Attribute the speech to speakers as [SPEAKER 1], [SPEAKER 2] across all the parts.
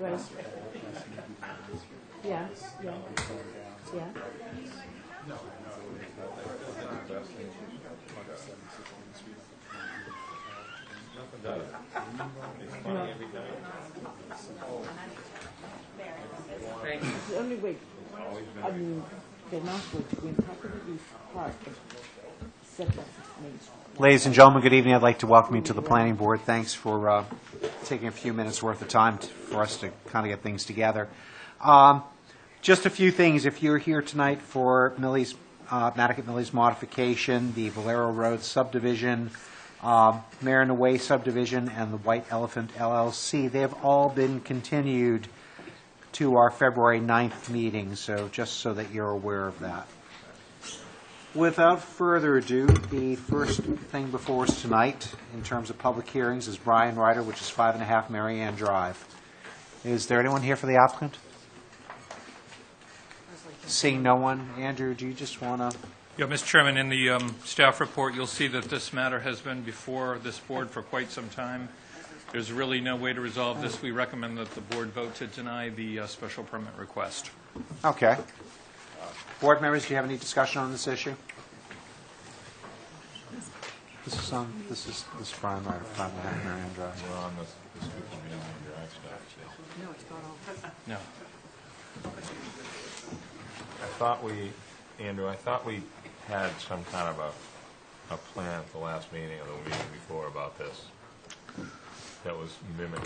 [SPEAKER 1] Right. Yeah, yeah, yeah.
[SPEAKER 2] Thank you.
[SPEAKER 1] The only way, I mean, the announcement, we have to be part of setback means.
[SPEAKER 3] Ladies and gentlemen, good evening. I'd like to welcome you to the planning board. Thanks for uh, taking a few minutes' worth of time t- for us to kind of get things together. Um, Just a few things. If you're here tonight for Millie's, uh, Mattocket Millie's modification, the Valero Road subdivision, um, Marin Way subdivision, and the White Elephant LLC, they have all been continued to our February 9th meeting, so just so that you're aware of that. Without further ado, the first thing before us tonight, in terms of public hearings, is Brian Ryder, which is five and a half Mary Ann Drive. Is there anyone here for the applicant? Seeing no one, Andrew, do you just want to,
[SPEAKER 4] Yeah, Mr. Chairman, in the um, staff report, you'll see that this matter has been before this board for quite some time. There's really no way to resolve this. We recommend that the board vote to deny the uh, special permit request.
[SPEAKER 3] okay. Board members, do you have any discussion on this issue? This is, on. this is, this is Brian Ryder, five and a half Mary Ann Drive.
[SPEAKER 5] We're on this, this group of meeting on your iStack, so.
[SPEAKER 4] No.
[SPEAKER 5] I thought we, Andrew, I thought we had some kind of a, a plan at the last meeting or the meeting before about this. That was mimicking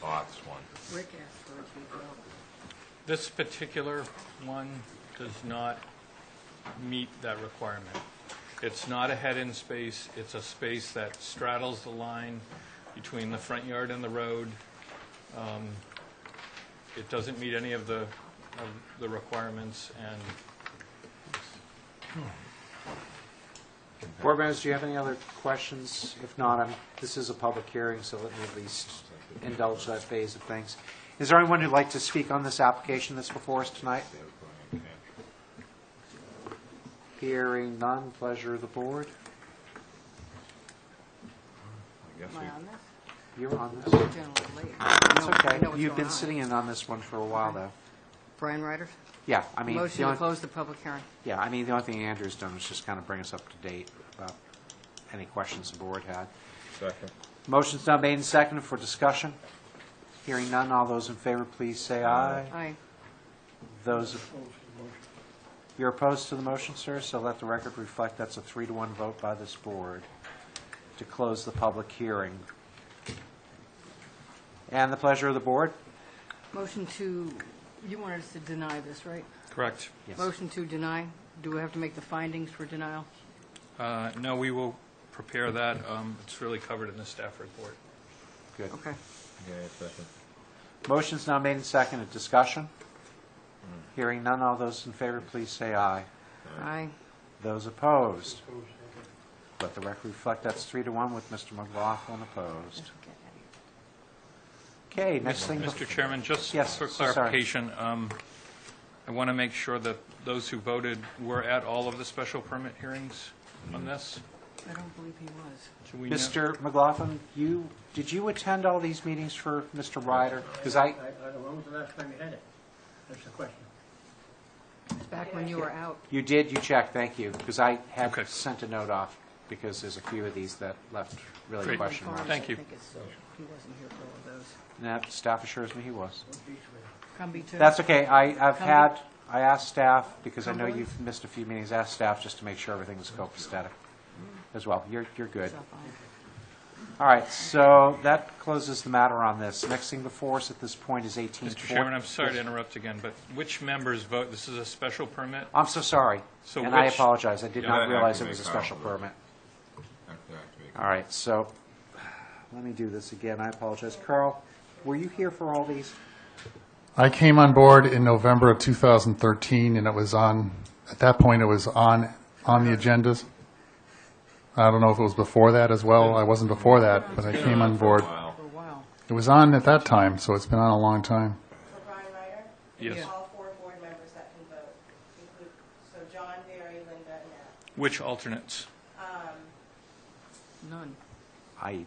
[SPEAKER 5] the Ox one.
[SPEAKER 6] Rick asked for it to be built.
[SPEAKER 4] This particular one does not meet that requirement. It's not a head-in space. It's a space that straddles the line between the front yard and the road. Um, It doesn't meet any of the, of the requirements, and
[SPEAKER 3] Board members, do you have any other questions? If not, I'm- this is a public hearing, so let me at least indulge that phase of things. Is there anyone who'd like to speak on this application that's before us tonight? Hearing none, pleasure of the board.
[SPEAKER 5] I guess
[SPEAKER 6] Am I on
[SPEAKER 5] we,
[SPEAKER 6] this?
[SPEAKER 3] You're on
[SPEAKER 6] I'm
[SPEAKER 3] this.
[SPEAKER 6] generally late.
[SPEAKER 3] It's
[SPEAKER 6] No, I
[SPEAKER 3] okay.
[SPEAKER 6] know what's
[SPEAKER 3] You've
[SPEAKER 6] going
[SPEAKER 3] been
[SPEAKER 6] on.
[SPEAKER 3] sitting in on this one for a while, though.
[SPEAKER 6] Brian Ryder,
[SPEAKER 3] Yeah, I mean, the
[SPEAKER 6] motion to
[SPEAKER 3] only,
[SPEAKER 6] close the public hearing.
[SPEAKER 3] yeah, I mean, the only thing Andrew's done is just kind of bring us up to date about any questions the board had.
[SPEAKER 5] second.
[SPEAKER 3] Motion's now made and seconded for discussion. Hearing none, all those in favor, please say aye.
[SPEAKER 6] Aye.
[SPEAKER 3] Those, you're opposed to the motion, sir, so let the record reflect that's a three to one vote by this board to close the public hearing. And the pleasure of the board?
[SPEAKER 6] Motion to, you wanted us to deny this, right?
[SPEAKER 4] Correct.
[SPEAKER 6] Motion to deny. Do we have to make the findings for denial?
[SPEAKER 4] Uh, No, we will prepare that. Um, It's really covered in the staff report.
[SPEAKER 3] Good.
[SPEAKER 6] Okay.
[SPEAKER 5] Yeah, second.
[SPEAKER 3] Motion's now made and seconded. Discussion? Hearing none, all those in favor, please say aye.
[SPEAKER 6] Aye.
[SPEAKER 3] Those opposed? Let the record reflect that's three to one with Mr. McLaughlin opposed. Okay, next thing.
[SPEAKER 4] Mr. Chairman, just
[SPEAKER 3] Yes,
[SPEAKER 4] for
[SPEAKER 3] sorry.
[SPEAKER 4] clarification, um, I want to make sure that those who voted were at all of the special permit hearings on this.
[SPEAKER 6] I don't believe he was.
[SPEAKER 4] Do we know-
[SPEAKER 3] Mr. McLaughlin, you, did you attend all these meetings for Mr. Ryder? Because I,
[SPEAKER 7] I, I, when was the last time you had it? That's the question.
[SPEAKER 6] Back when you were out.
[SPEAKER 3] you did, you checked, thank you, because I
[SPEAKER 4] Okay.
[SPEAKER 3] had sent a note off, because there's a few of these that left really
[SPEAKER 4] Great.
[SPEAKER 3] question marks.
[SPEAKER 4] Thank you.
[SPEAKER 6] I think it's, he wasn't here for all of those.
[SPEAKER 3] No, staff assures me he was.
[SPEAKER 6] Comby too?
[SPEAKER 3] That's okay, I, I've
[SPEAKER 6] Cumberland?
[SPEAKER 3] had, I asked staff, because I know
[SPEAKER 6] Cumberland?
[SPEAKER 3] you've missed a few meetings, asked staff just to make sure everything was copacetic as well. You're, you're good.
[SPEAKER 6] Stop on.
[SPEAKER 3] All right, so that closes the matter on this. Next thing before us at this point is 18.
[SPEAKER 4] Mr. Chairman, I'm sorry to interrupt again, but which members vote, this is a special permit?
[SPEAKER 3] I'm so sorry.
[SPEAKER 4] So
[SPEAKER 3] And I
[SPEAKER 4] which-
[SPEAKER 3] apologize. I did
[SPEAKER 4] Yeah,
[SPEAKER 3] not
[SPEAKER 5] that
[SPEAKER 3] realize it
[SPEAKER 5] activates
[SPEAKER 3] was a special
[SPEAKER 5] all of
[SPEAKER 3] permit.
[SPEAKER 5] After activate.
[SPEAKER 3] All right, so, let me do this again. I apologize. Carl, were you here for all these?
[SPEAKER 8] I came on board in November of 2013, and it was on, at that point, it was on, on the agendas. I don't know if it was before that as well. I wasn't before that, but I came on board.
[SPEAKER 5] Wow.
[SPEAKER 6] For a while.
[SPEAKER 8] It was on at that time, so it's been on a long time.
[SPEAKER 9] For Brian Ryder?
[SPEAKER 4] Yes.
[SPEAKER 9] All four board members that can vote, include, so John, Barry, Linda, and Anna.
[SPEAKER 4] Which alternates?
[SPEAKER 6] None.
[SPEAKER 3] I